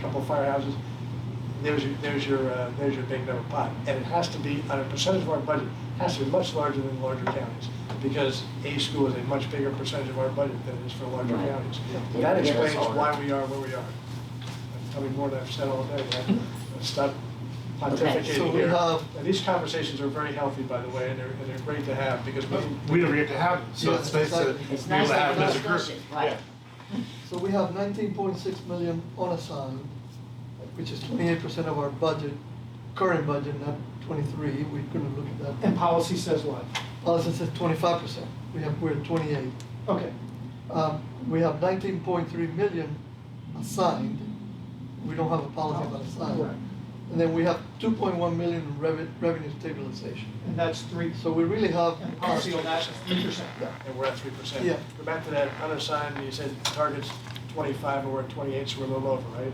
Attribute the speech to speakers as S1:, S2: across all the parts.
S1: couple of firehouses, there's, your- there's your, uh, there's your big number pot. And it has to be, on a percentage of our budget, it has to be much larger than larger counties, because a school is a much bigger percentage of our budget than it is for larger
S2: Right.
S1: counties.
S2: Yeah.
S1: That
S2: Yeah, that's
S1: explains
S2: all
S1: why
S2: right.
S1: we are where we are. I'm telling you more than I've said all day, but let's not
S2: Okay,
S1: pontificating
S3: so we
S1: here.
S3: have-
S1: And these conversations are very healthy, by the way, and they're, and they're great to have, because we,
S4: We never get to have it, so it's nice to be able
S2: It's
S4: to
S2: nice to
S4: have
S2: have
S4: it
S2: a
S4: as a group.
S2: discussion, right?
S3: So we have nineteen point six million unassigned, which is twenty-eight percent of our budget, current budget, not twenty-three, we couldn't look at that.
S5: And policy says what?
S3: Policy says twenty-five percent, we have, we're at twenty-eight.
S5: Okay,
S3: Um, we have nineteen point three million assigned, we don't have a policy about assigned.
S5: Right.
S3: And then we have two point one million in revenue, revenue stabilization.
S5: and that's three,
S3: So we really have.
S5: and policy on that is three percent.
S1: and we're at three percent.
S3: Yeah.
S1: Go back to that unassigned, you said target's twenty-five, and we're at twenty-eight, so we're a little over, right?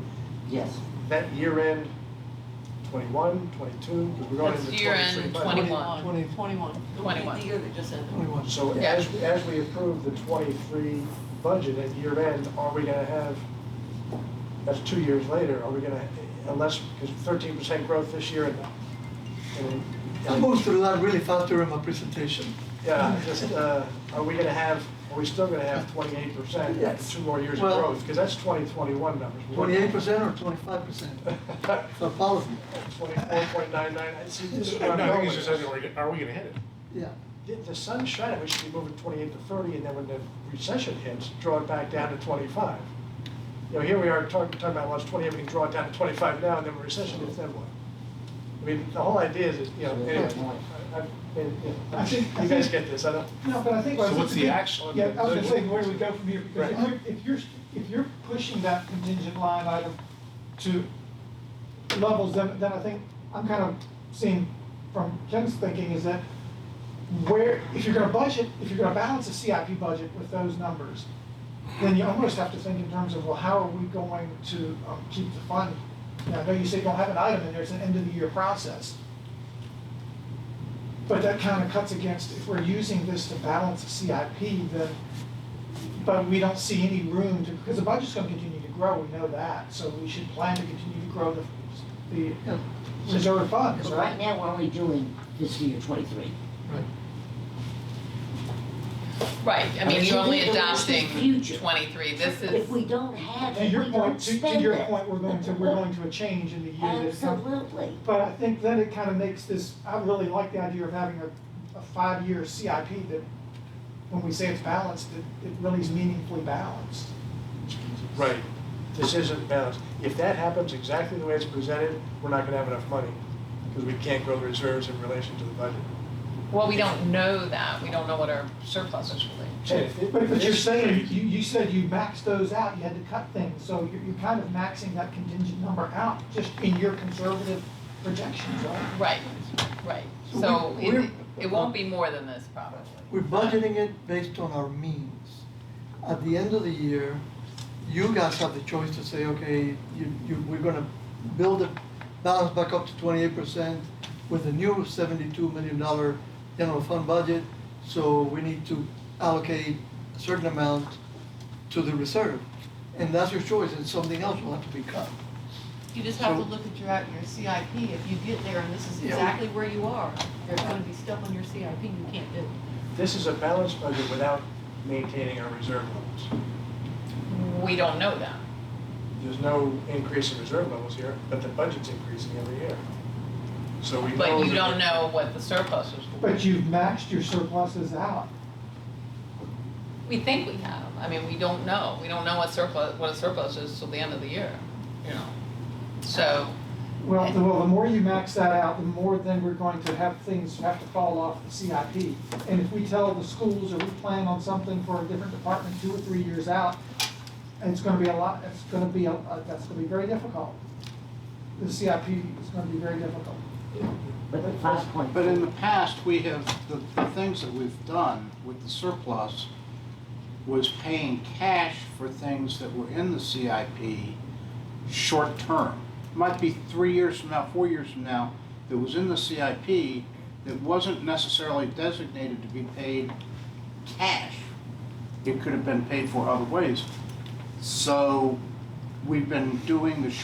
S2: Yes.
S1: That year end, twenty-one, twenty-two, because we're going
S6: That's
S1: into
S6: year end
S1: twenty-three. budget.
S6: 21.
S3: Twenty,
S6: Twenty-one. Twenty-one.
S7: The year that just ended.
S3: twenty-one.
S1: So
S6: Yeah.
S1: as, as we approve the twenty-three budget at year end, are we gonna have, that's two years later, are we gonna, unless, because thirteen percent growth this year and, and-
S3: I moved through that really fast during my presentation.
S1: yeah, just, uh, are we gonna have, are we still gonna have twenty-eight percent
S3: Yes.
S1: after two more years of
S3: Well-
S1: growth? Because that's twenty twenty-one numbers.
S3: Twenty-eight percent or twenty-five percent? So policy,
S1: Twenty-four point nine nine, I see this is
S4: No,
S1: where I'm
S4: I
S1: going
S4: think
S1: with
S4: it's just,
S1: this.
S4: are we- are we gonna hit it?
S3: yeah.
S1: If the sun's shining, we should be moving twenty-eight to thirty, and then when the recession hits, draw it back down to twenty-five. You know, here we are talking, talking about, well, it's twenty-eight, we can draw it down to twenty-five now, and then when recession hits, then what? I mean, the whole idea is, is, you know, anyway, I, I,
S5: I think- I
S1: you guys
S5: think-
S1: get this, I don't,
S5: No, but I think.
S4: So what's the action?
S5: Yeah, I was gonna say, where do we go from here? Because if
S1: Right.
S5: you're- if you're, if you're pushing that contingent line item to levels, then, then I think, I'm kind of seeing from Ken's thinking is that where, if you're gonna budget, if you're gonna balance a CIP budget with those numbers, then you almost have to think in terms of, well, how are we going to um, keep the fund? Now, I know you say you don't have an item in there, it's an end of the year process. But that kind of cuts against, if we're using this to balance a CIP, then, but we don't see any room to, because the budget's gonna continue to grow, we know that. So we should plan to continue to grow the, the
S3: Yeah,
S5: reserve funds,
S2: But
S5: right?
S2: right now, we're only doing fiscal year twenty-three.
S3: Right.
S6: Right, I mean, you're only
S2: But this is the
S6: adopting
S2: future.
S6: twenty-three, this
S2: If we
S6: is,
S2: don't have
S5: To
S2: it,
S5: your
S2: we
S5: point,
S2: don't
S5: to, to
S2: spend
S5: your
S2: it.
S5: point, we're going to, we're going to a change in the year that comes.
S2: Absolutely.
S5: But I think then it kind of makes this, I really like the idea of having a, a five-year CIP that, when we say it's balanced, it, it really is meaningfully balanced.
S1: right, this isn't balanced. If that happens exactly the way it's presented, we're not gonna have enough money, because we can't grow the reserves in relation to the budget.
S6: well, we don't know that, we don't know what our surplus is really.
S1: So if it-
S5: But, but you're
S1: this-
S5: saying, you, you said you maxed those out, you had to cut things, so you're, you're kind of maxing that contingent number out, just in your conservative projections, right?
S6: Right, right,
S3: So
S6: so
S3: we-
S6: it,
S3: we're-
S6: it won't be more than this probably.
S3: We're budgeting it based on our means. At the end of the year, you guys have the choice to say, okay, you, you, we're gonna build the balance back up to twenty-eight percent with a new seventy-two million dollar general fund budget, so we need to allocate a certain amount to the reserve. And that's your choice, and something else will have to be cut.
S7: You just have to
S3: So-
S7: look at your, at your CIP, if you get there and this is
S3: Yeah.
S7: exactly where you are, there's gonna be stuff on your CIP you can't do.
S1: This is a balanced budget without maintaining our reserve levels.
S6: We don't know that,
S1: There's no increase in reserve levels here, but the budget's increasing every year. So we know.
S6: but you
S1: that-
S6: don't know what the surplus is for.
S5: But you've maxed your surpluses out.
S6: We think we have, I mean, we don't know, we don't know what surplus, what a surplus is till the end of the year, you know. So,
S5: Well, the, well, the more you max that out, the more then we're going to have things have to fall off the CIP. And if we tell the schools or we plan on something for a different department two or three years out, it's gonna be a lot, it's gonna be, a- uh, that's gonna be very difficult. The CIP is gonna be very difficult.
S2: But the five point
S8: But in the
S2: four,
S8: past, we have, the, the things that we've done with the surplus was paying cash for things that were in the CIP short-term. Might be three years from now, four years from now, that was in the CIP that wasn't necessarily designated to be paid cash. It could have been paid for other ways. So we've been doing the